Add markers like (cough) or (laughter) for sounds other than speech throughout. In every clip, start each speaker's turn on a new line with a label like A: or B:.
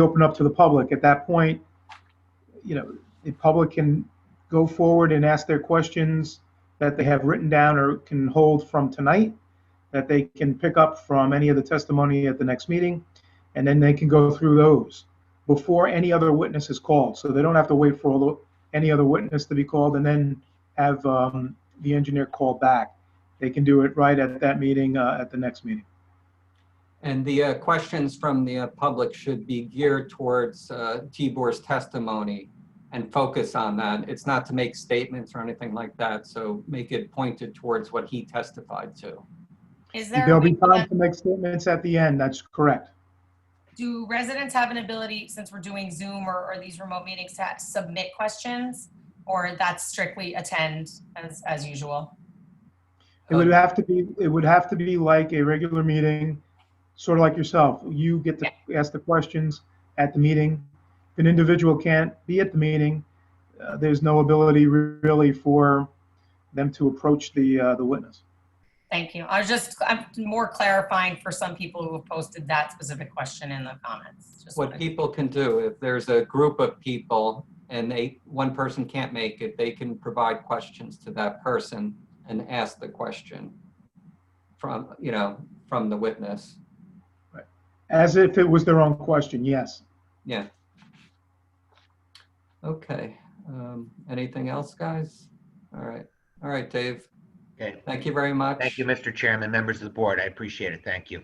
A: open up to the public. At that point, you know, the public can go forward and ask their questions that they have written down or can hold from tonight, that they can pick up from any of the testimony at the next meeting, and then they can go through those before any other witness is called. So they don't have to wait for all the, any other witness to be called and then have um, the engineer call back. They can do it right at that meeting, uh, at the next meeting.
B: And the uh, questions from the uh, public should be geared towards uh, Tibor's testimony and focus on that. It's not to make statements or anything like that, so make it pointed towards what he testified to.
C: Is there, a
A: There'll
C: way
A: be
C: for
A: time
C: them-
A: to make statements at the end, that's correct.
C: do residents have an ability, since we're doing Zoom or, or these remote meetings, to submit questions? Or that's strictly attend as, as usual?
A: It
B: Um,
D: Um,
A: would have to be, it would have to be like a regular meeting, sort of like yourself. You get to ask the questions at the meeting. If an individual can't be at the meeting, uh, there's no ability re- really for them to approach the, uh, the witness.
C: Thank you. I was just, I'm more clarifying for some people who have posted that specific question in the comments. Just
B: What
C: wanted-
B: people can do, if there's a group of people and they, one person can't make it, they can provide questions to that person and ask the question from, you know, from the witness.
A: As if it was their own question, yes.
B: Yeah. Okay, um, anything else, guys? All right, all right, Dave,
E: Okay,
B: thank you very much.
E: thank you, Mr. Chairman, members of the board. I appreciate it. Thank you.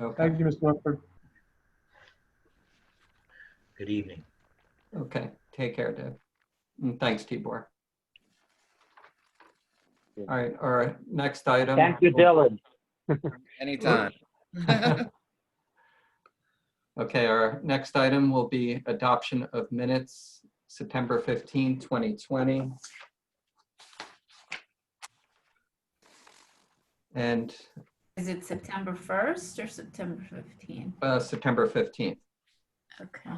B: Okay,
A: Thank you, Mr. Rutherford.
E: Good evening.
B: okay, take care, Dave. And thanks, Tibor. All right, all right, next item.
F: Thank you, Dylan.
G: Anytime.
B: Okay, our next item will be adoption of minutes, September 15, 2020. And
H: Is it September 1st or September 15th?
B: uh, September 15th.
H: Okay.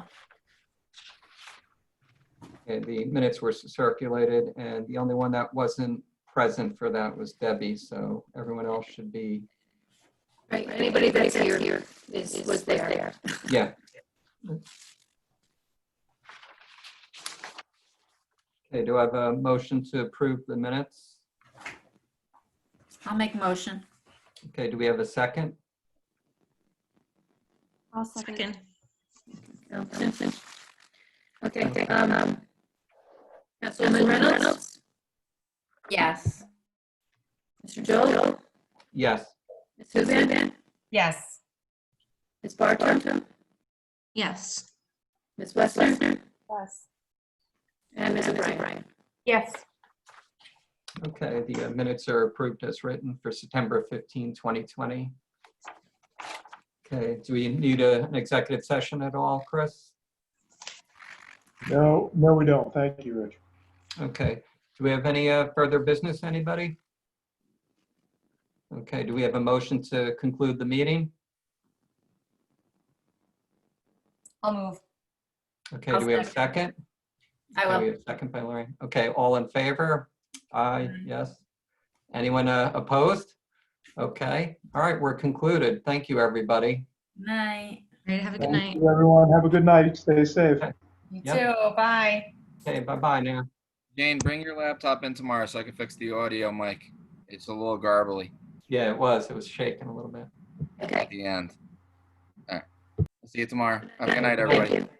B: Okay, the minutes were circulated, and the only one that wasn't present for that was Debbie, so everyone else should be,
I: Right, anybody that's here is, was there.
B: yeah. Okay, do I have a motion to approve the minutes?
H: I'll make motion.
B: Okay, do we have a second?
I: I'll
H: second.
I: (laughs) Okay, um, Councilwoman Reynolds,
H: Yes.
I: Mr. Joel,
B: Yes.
I: Ms. Huzan,
C: Yes,
I: Ms. Barton,
D: Yes.
I: Ms. Westler,
D: Yes.
I: and Ms. O'Brien.
D: Yes.
B: Okay, the uh, minutes are approved as written for September 15, 2020. Okay, do we need a- an executive session at all, Chris?
A: No, no, we don't. Thank you, Rich.
B: Okay, do we have any uh, further business, anybody? Okay, do we have a motion to conclude the meeting?
C: I'll move.
B: Okay, do we have a second?
H: I
B: Do we
H: will.
B: have a Second by Lorraine. Okay, all in favor? Aye,
H: Aye.
B: yes. Anyone uh, opposed? Okay, all right, we're concluded. Thank you, everybody.
H: Night.
D: All right, have a good night.
A: Thank you, Everyone, have a good night. Stay safe.
C: You
B: Yep.
C: too. Bye.
B: Okay, bye-bye now.
G: Jane, bring your laptop in tomorrow so I can fix the audio mic. It's a little garbly
B: Yeah, it was. It was shaking a little bit.
I: Okay.
G: at the end. All right. See you tomorrow. Have a good night, everybody.
I: Thank you.